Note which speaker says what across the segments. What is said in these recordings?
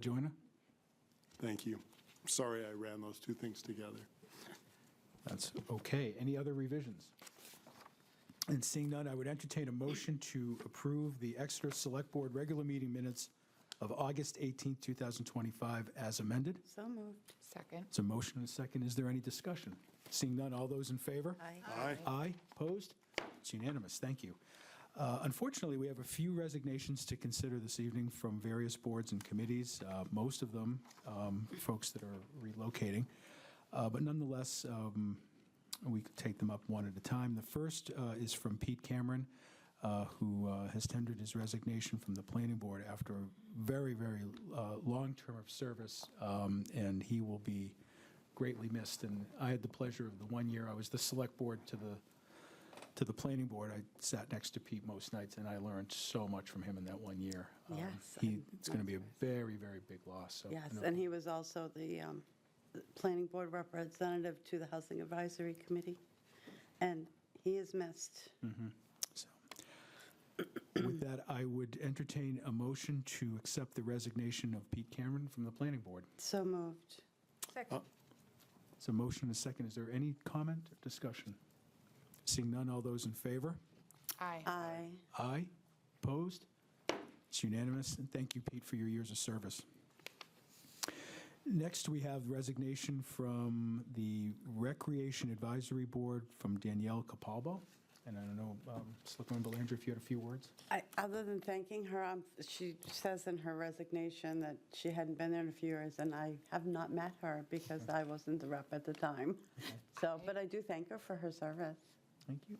Speaker 1: Joyner?
Speaker 2: Thank you. Sorry I ran those two things together.
Speaker 1: That's okay. Any other revisions? And seeing none, I would entertain a motion to approve the Exeter Select Board regular meeting minutes of August 18, 2025, as amended.
Speaker 3: So moved. Second.
Speaker 1: It's a motion and a second. Is there any discussion? Seeing none, all those in favor?
Speaker 3: Aye.
Speaker 2: Aye.
Speaker 1: Aye, opposed? It's unanimous, thank you. Uh, Unfortunately, we have a few resignations to consider this evening from various boards and committees, uh, most of them um, folks that are relocating. Uh, But nonetheless, um, we could take them up one at a time. The first uh, is from Pete Cameron, uh, who uh, has tendered his resignation from the planning board after a very, very uh, long term of service, um, and he will be greatly missed. And I had the pleasure of the one year I was the select board to the to the planning board, I sat next to Pete most nights, and I learned so much from him in that one year. Um,
Speaker 3: Yes,
Speaker 1: he,
Speaker 3: I'm-
Speaker 1: it's going to be a very, very big loss. So,
Speaker 3: Yes,
Speaker 1: no,
Speaker 3: and he was also the um, the Planning Board Representative to the Housing Advisory Committee, and he is missed.
Speaker 1: so. With that, I would entertain a motion to accept the resignation of Pete Cameron from the planning board.
Speaker 3: So moved.
Speaker 2: Uh,
Speaker 1: So, motion and a second. Is there any comment or discussion? Seeing none, all those in favor?
Speaker 4: Aye.
Speaker 3: Aye.
Speaker 1: Aye. Opposed? It's unanimous, and thank you, Pete, for your years of service. Next, we have resignation from the Recreation Advisory Board from Danielle Capalbo. And I don't know, um, Selectwoman Belanger, if you had a few words?
Speaker 3: I- Other than thanking her, um, she says in her resignation that she hadn't been there in a few years, and I have not met her because I wasn't the rep at the time. So, but I do thank her for her service.
Speaker 1: Thank you.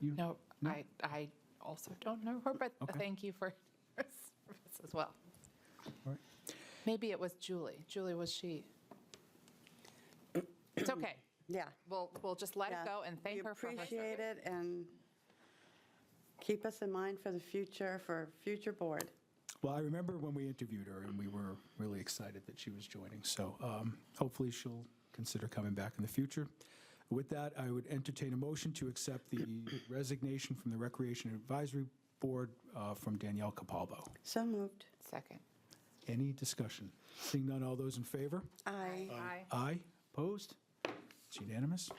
Speaker 1: You-
Speaker 4: No, I, I also don't know her, but
Speaker 1: Okay.
Speaker 4: thank you for her service as well.
Speaker 1: All right.
Speaker 4: Maybe it was Julie. Julie, was she? It's okay.
Speaker 3: Yeah.
Speaker 4: We'll, we'll just let
Speaker 3: Yeah.
Speaker 4: it go and thank her for her
Speaker 3: We
Speaker 4: service.
Speaker 3: appreciate it and keep us in mind for the future, for future board.
Speaker 1: Well, I remember when we interviewed her, and we were really excited that she was joining, so um, hopefully she'll consider coming back in the future. With that, I would entertain a motion to accept the resignation from the Recreation Advisory Board uh, from Danielle Capalbo.
Speaker 3: So moved.
Speaker 4: Second.
Speaker 1: Any discussion? Seeing none, all those in favor?
Speaker 3: Aye.
Speaker 4: Aye.
Speaker 1: Aye. Opposed? It's unanimous.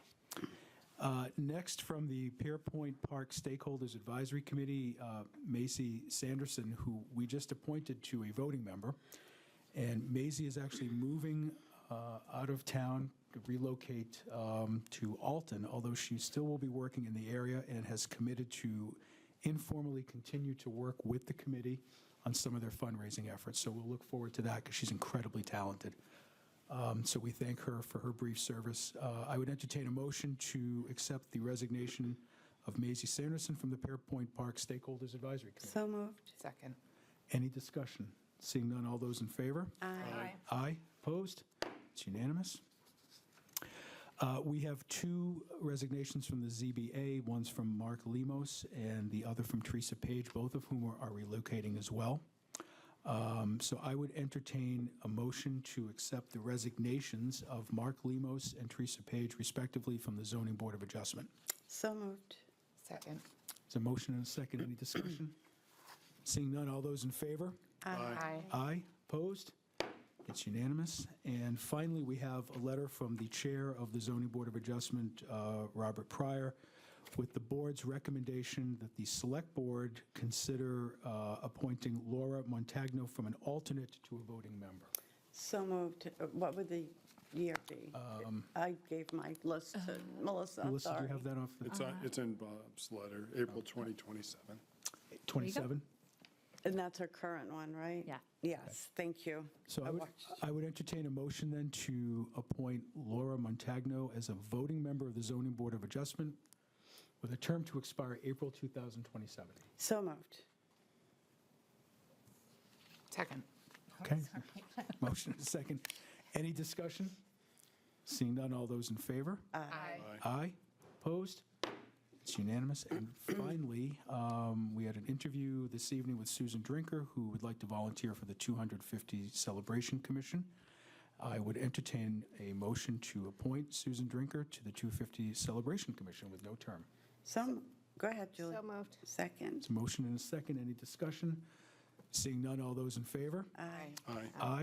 Speaker 1: Uh, Next, from the Pierpoint Park Stakeholders Advisory Committee, uh, Macy Sanderson, who we just appointed to a voting member. And Macy is actually moving uh, out of town to relocate um, to Alton, although she still will be working in the area and has committed to informally continue to work with the committee on some of their fundraising efforts. So we'll look forward to that because she's incredibly talented. Um, So we thank her for her brief service. Uh, I would entertain a motion to accept the resignation of Maisie Sanderson from the Pearpoint Park Stakeholders Advisory Committee.
Speaker 3: So moved.
Speaker 4: Second.
Speaker 1: Any discussion? Seeing none, all those in favor?
Speaker 4: Aye.
Speaker 1: Aye. Opposed? It's unanimous. Uh, We have two resignations from the ZBA, one's from Mark Lemos and the other from Teresa Page, both of whom are are relocating as well. Um, So I would entertain a motion to accept the resignations of Mark Lemos and Teresa Page respectively from the Zoning Board of Adjustment.
Speaker 3: So moved.
Speaker 4: Second.
Speaker 1: Is a motion and a second, any discussion? Seeing none, all those in favor?
Speaker 4: Aye.
Speaker 1: Aye. Opposed? It's unanimous. And finally, we have a letter from the Chair of the Zoning Board of Adjustment, uh, Robert Pryor, with the board's recommendation that the Select Board consider uh, appointing Laura Montagno from an alternate to a voting member.
Speaker 3: So moved. Uh, What would the year be? I gave my list
Speaker 4: Uh-huh.
Speaker 3: to Melissa,
Speaker 1: Um, Melissa,
Speaker 3: I'm
Speaker 1: do you
Speaker 3: sorry.
Speaker 1: have that off the
Speaker 2: It's, on- it's in Bob's letter, April 2027.
Speaker 1: 27?
Speaker 3: And that's her current one, right?
Speaker 5: Yeah.
Speaker 3: Yes, thank you.
Speaker 1: So I would,
Speaker 3: watched.
Speaker 1: I would entertain a motion then to appoint Laura Montagno as a voting member of the Zoning Board of Adjustment with a term to expire April 2027.
Speaker 3: So moved.
Speaker 4: Second.
Speaker 1: Okay. Motion and second. Any discussion? Seeing none, all those in favor?
Speaker 4: Aye.
Speaker 1: Aye. Opposed? It's unanimous. And finally, um, we had an interview this evening with Susan Drinker, who would like to volunteer for the 250 Celebration Commission. I would entertain a motion to appoint Susan Drinker to the 250 Celebration Commission with no term.
Speaker 3: So, go ahead, Julie.
Speaker 5: So moved.
Speaker 3: Second.
Speaker 1: It's a motion and a second. Any discussion? Seeing none, all those in favor?
Speaker 4: Aye.
Speaker 2: Aye.
Speaker 1: Aye.